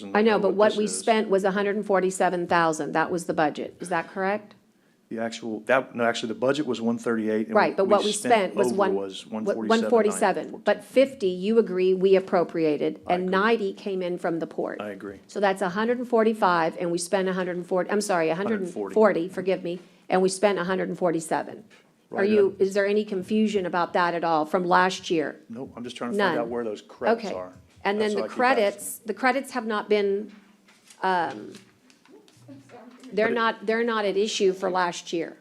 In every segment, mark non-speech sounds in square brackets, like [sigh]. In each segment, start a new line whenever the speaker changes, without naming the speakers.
doesn't
I know, but what we
this is.
spent was hundred and forty-seven thousand. That was the budget. Is that correct?
The actual, that, no, actually, the budget was one thirty-eight.
Right, but what we spent was one.
Was one forty-seven.
One forty-seven, but fifty, you agree, we appropriated,
I
and
agree.
ninety came in from the port.
I agree.
So that's hundred and forty-five, and we spent hundred and forty, I'm sorry, hundred and
140.
forty, forgive me, and we spent hundred and forty-seven. Are
Right, um,
you, is there any confusion about that at all from last year?
No, I'm just trying to find out
None.
where those credits
Okay.
are.
And
That's
then
all
the
I keep asking.
credits, the credits have not been, um, they're
But it-
not, they're not at issue for last year.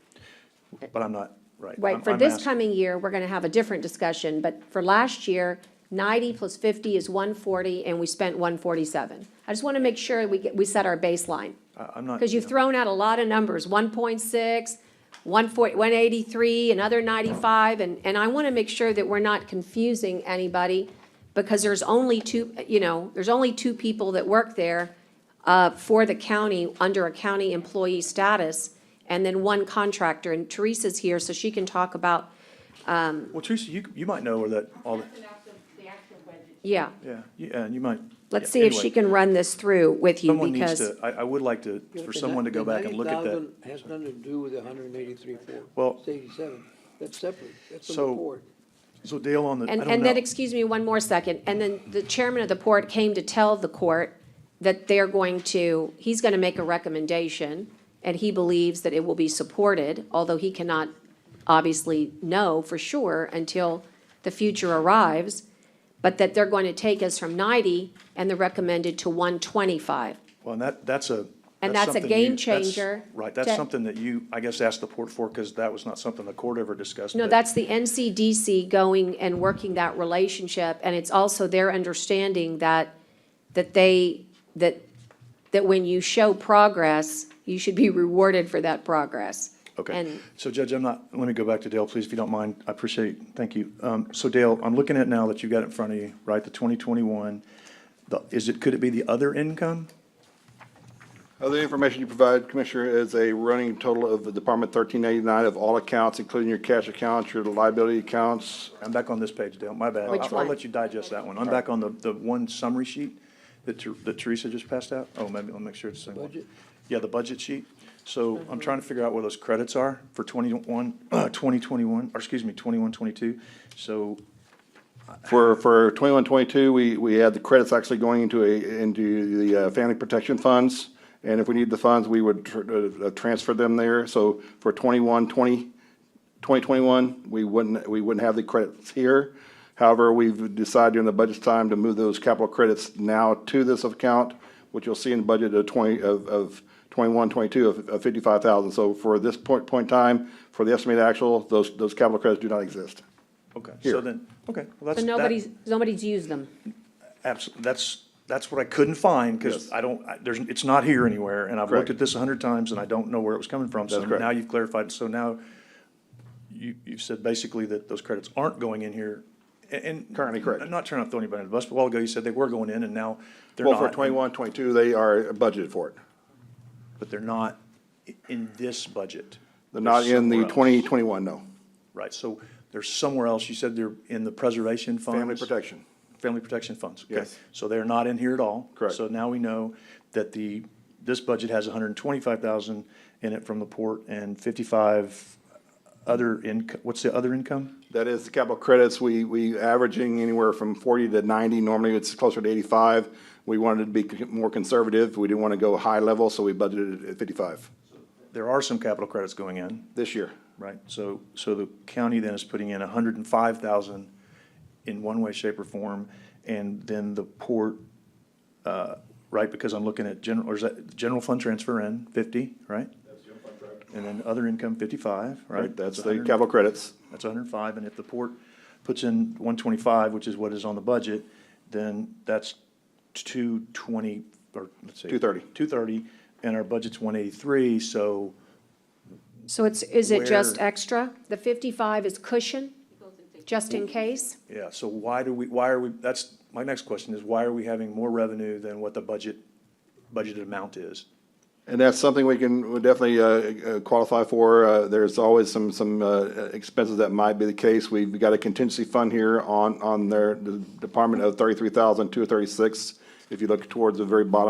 But I'm not, right. I'm-
Right, for
I'm
this
asking-
coming year, we're gonna have a different discussion, but for last year, ninety plus fifty is one forty, and we spent one forty-seven. I just wanna make sure we get, we set our baseline,
I- I'm not.
because you've
yeah.
thrown out a lot of numbers, 1.6, 140 183, another ninety-five, and, and I wanna make sure that we're not confusing anybody, because there's only two, you know, there's only two people that work there, uh, for the county, under a county employee status, and then one contractor, and Teresa's here, so she can talk about
Well, Teresa, you, you might know where that, all, the-
Yeah,
yeah, you- and you might.
let's
yeah,
see if
anyway,
she can run this through with you
Someone needs
because,
to, I, I would like to, for someone to go back and look at that.
$90,000 Has nothing to do with the hundred and eighty-three, four.
Well-
It's eighty-seven, that's separate, that's on
So-
the board.
So Dale on the, I
and,
don't
and then,
know.
excuse me, one more second. And then the chairman of the port came to tell the court that they're going to, he's going to make a recommendation and he believes that it will be supported, although he cannot obviously know for sure until the future arrives, but that they're going to take us from 90 and the recommended to 125.
Well, and that, that's a.
And that's a
something
game
you- that's-
changer
Right,
to-
that's something that you, I guess, asked the court for, because that was not something the court ever discussed.
No,
but-
that's the NCDC going and working that relationship, and it's also their understanding that, that they, that, that when you show progress, you should be rewarded for that progress.
Okay,
And
so Judge, I'm not, let me go back to Dale, please, if you don't mind, I appreciate, thank you. Um, so Dale, I'm looking at now that you've got it in front of you, right, the twenty twenty-one, the, is it, could it be the other income?
Other information you provide, Commissioner, is a running total of the Department thirteen eighty-nine of all accounts, including your cash accounts, your liability accounts.
I'm back on this page, Dale, my bad.
Which
I'll-
one?
I'll let you digest that one, I'm back on the, the one summary sheet that Ter- that Teresa just passed out, oh, maybe, I'll make sure it's the same one.
Budget.
Yeah, the budget sheet, so
Mm-hmm.
I'm trying to figure out where those credits are for twenty-one, [clears throat] twenty twenty-one, or excuse me, twenty-one, twenty-two, so
[laughs] For, for twenty-one, twenty-two, we, we had the credits actually going into a, into the, uh, family protection funds. And if we need the funds, we would tr- uh, uh, transfer them there. So for twenty-one, twenty, 2021, we wouldn't, we wouldn't have the credits here. However, we've decided during the budget time to move those capital credits now to this account, which you'll see in the budget of 20, of, of 21, 22, of of 55,000. So for this point, point in time, for the estimated actual, those, those capital credits do not exist.
Okay, so
Here.
then, okay, well, that's.
so
that-
nobody's, nobody's used them.
Abs- that's, that's what I couldn't find, because
Yes.
I don't, I- there's, it's not here anywhere, and I've looked
Correct.
at this a hundred times, and I don't know where it was coming from, so
That's correct.
now you've clarified, so now you, you've said basically that those credits aren't going in here, a- and.
Currently correct.
I'm not trying to throw anybody under the bus, but a while ago you said they were going in, and now they're
Well,
not.
for 21, 22, they are budgeted for it.
But they're not i- in this budget.
They're not in the
somewhere else.
2021, no.
Right, so they're somewhere else, you said they're in the preservation funds?
Family protection.
Family Protection Funds. okay.
Yes.
So they're not in here at all.
Correct.
So now we know that the, this budget has hundred and twenty-five thousand in it from the port and fifty-five other income, what's the other income?
That is the capital credits. We, we averaging anywhere from forty to ninety. Normally, it's closer to eighty-five. We wanted to be c- more conservative. We didn't want to go high level, so we budgeted at fifty-five
There are some capital credits going in,
this year.
right? So, so the county then is putting in hundred and five thousand in one way, shape, or form, and then the port, uh, right, because I'm looking at general, or is that general fund transfer in fifty, right? And then other income fifty-five, right?
Right, that's the
100.
capital credits.
That's hundred and five, and if the port puts in one twenty-five, which is what is on the budget, then that's two twenty, or let's see.
230.
Two thirty, and our budget's one eighty-three, so,
So it's, is it just
Where-
extra? The fifty-five is cushion, just in case?
yeah, so why do we, why are we, that's, my next question is, why are we having more revenue than what the budget, budgeted amount is?
And that's something we can we definitely uh, uh, qualify for. Uh, There's always some, some uh, expenses that might be the case. We've got a contingency fund here on, on their the department of thirty-three thousand, two thirty-six. If you look towards the very bottom